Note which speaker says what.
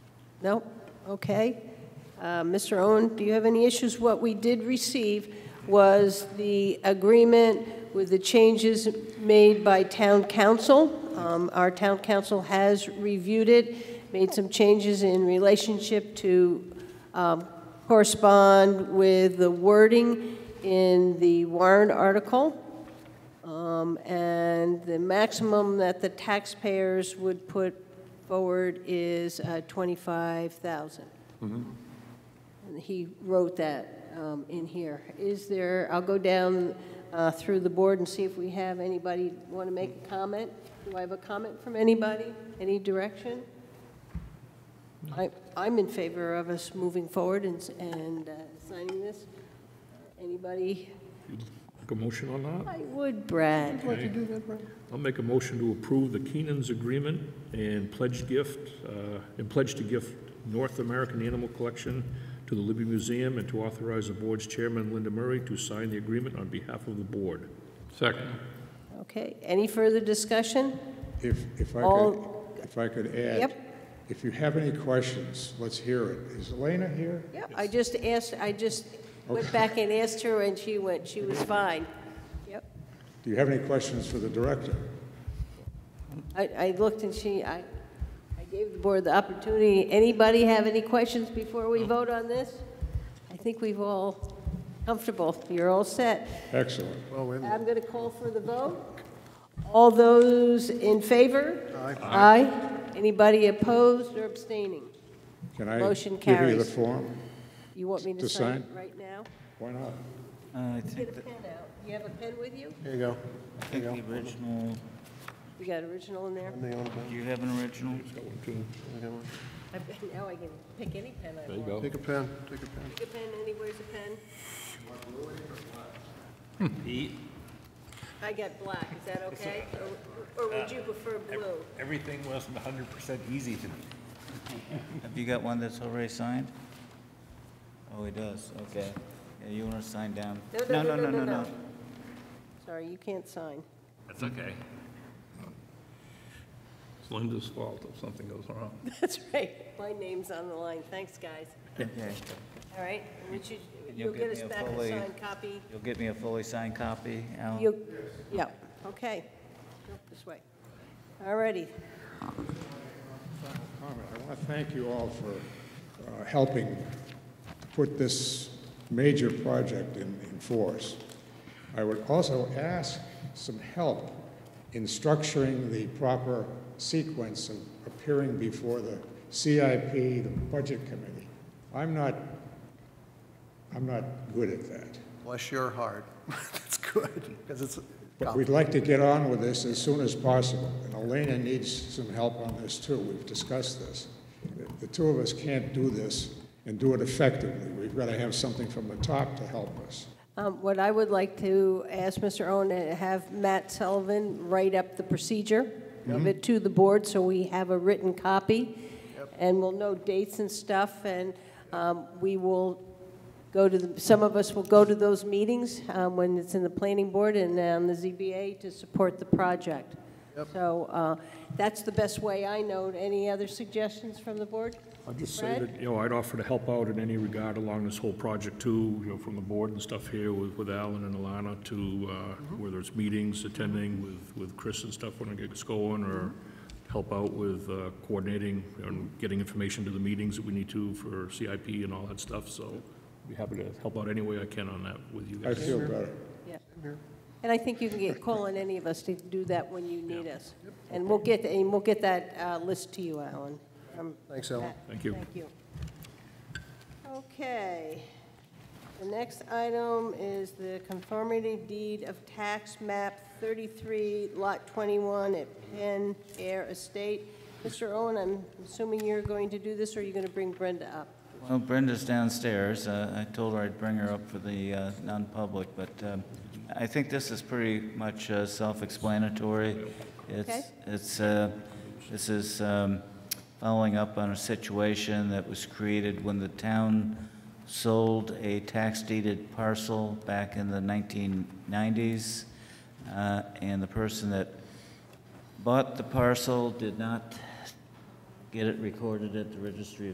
Speaker 1: No? Okay. Uh, Mr. Owen, do you have any issues? What we did receive was the agreement with the changes made by town council. Um, Our town council has reviewed it, made some changes in relationship to um, correspond with the wording in the warrant article. Um, And the maximum that the taxpayers would put forward is uh, 25,000. And He wrote that um, in here. Is there, I'll go down uh, through the board and see if we have anybody want to make a comment? Do I have a comment from anybody? Any direction? I- I'm in favor of us moving forward and s- and uh, signing this. Anybody?
Speaker 2: Make a motion on that?
Speaker 1: I would, Brad.
Speaker 2: I'll make a motion to approve the Keenan's agreement and pledge gift, uh, and pledge to gift North American Animal Collection to the Libby Museum and to authorize the board's chairman, Linda Murray, to sign the agreement on behalf of the board.
Speaker 3: Second.
Speaker 1: Okay, any further discussion?
Speaker 4: If, if I could,
Speaker 1: All-
Speaker 4: if I could add,
Speaker 1: Yep.
Speaker 4: if you have any questions, let's hear it. Is Elena here?
Speaker 1: Yeah, I just asked, I just went back and asked her, and she went, she was fine. Yep.
Speaker 4: Do you have any questions for the director?
Speaker 1: I, I looked and she, I, I gave the board the opportunity. Anybody have any questions before we vote on this? I think we've all comfortable. You're all set.
Speaker 4: Excellent.
Speaker 1: I'm going to call for the vote. All those in favor? Aye. Aye. Anybody opposed or abstaining?
Speaker 4: Can I
Speaker 1: Motion
Speaker 4: give you the
Speaker 1: carries.
Speaker 4: form?
Speaker 1: You want me to
Speaker 4: To
Speaker 1: sign it
Speaker 4: sign?
Speaker 1: right now?
Speaker 4: Why not?
Speaker 5: Uh, I
Speaker 1: Get
Speaker 5: think
Speaker 1: a pen out. You have a pen with you?
Speaker 6: There you go.
Speaker 5: I think the original,
Speaker 1: You got original in there?
Speaker 6: Hang on a bit.
Speaker 5: do you have an original?
Speaker 1: I've- Now I can pick any pen I want.
Speaker 4: Oh.
Speaker 6: Take a pen, take a pen.
Speaker 1: Pick a pen, anywhere's a pen.
Speaker 7: Pete,
Speaker 1: I got black, is that okay? Or or would you prefer blue?
Speaker 7: everything wasn't hundred percent easy to me.
Speaker 5: Have you got one that's already signed? Oh, he does, okay. Yeah, you want to sign down?
Speaker 1: No, no, no, no, no, no. Sorry, you can't sign.
Speaker 7: That's okay.
Speaker 3: It's Linda's fault if something goes wrong.
Speaker 1: That's right, my name's on the line, thanks, guys.
Speaker 5: Okay.
Speaker 1: All right, and would you- you'll
Speaker 5: You'll
Speaker 1: get
Speaker 5: get
Speaker 1: us
Speaker 5: me a
Speaker 1: back a
Speaker 5: fully-
Speaker 1: signed copy?
Speaker 5: You'll get me a fully signed copy, Al?
Speaker 1: You, yeah, okay. Go This way. All righty,
Speaker 4: Comment. I want to thank you all for uh, helping to put this major project in, in force. I would also ask some help in structuring the proper sequence of appearing before the CIP, the Budget Committee. I'm not, I'm not good at that.
Speaker 6: Bless your heart. That's good, because it's,
Speaker 4: But we'd like to get on with this as soon as possible, and Elena needs some help on this too. We've discussed this. The- The two of us can't do this and do it effectively. We've got to have something from the top to help us.
Speaker 1: Um, What I would like to ask Mr. Owen, to have Matt Sullivan write up the procedure, give it to the board, so we have a written copy, and we'll know dates and stuff, and um, we will go to, the- some of us will go to those meetings um, when it's in the planning board and uh, on the ZBA to support the project. So uh, that's the best way I know. Any other suggestions from the board?
Speaker 2: I'll just say
Speaker 1: Fred?
Speaker 2: that, you know, I'd offer to help out in any regard along this whole project too, you know, from the board and stuff here with, with Alan and Alana to, uh, whether it's meetings, attending with, with Chris and stuff when it gets going, or help out with uh, coordinating and getting information to the meetings that we need to for CIP and all that stuff, so be happy to help out any way I can on that with you
Speaker 4: I
Speaker 2: guys.
Speaker 4: feel better.
Speaker 1: Yeah. And I think you can get, call on any of us to do that when you need
Speaker 2: Yeah.
Speaker 1: us. And we'll get, and we'll get that uh, list to you, Alan. Um,
Speaker 6: thanks, Ellen.
Speaker 1: Matt,
Speaker 2: Thank you.
Speaker 1: Thank you. Okay. The next item is the conformity deed of tax map 33, lot 21 at Penn Air Estate. Mr. Owen, I'm assuming you're going to do this, or are you going to bring Brenda up?
Speaker 5: Well, Brenda's downstairs. Uh, I told her I'd bring her up for the uh, non-public, but um, I think this is pretty much uh, self-explanatory.
Speaker 1: Okay.
Speaker 5: It's, it's, uh, this is um, following up on a situation that was created when the town sold a tax-deeded parcel back in the 1990s, uh, and the person that bought the parcel did not get it recorded at the registry of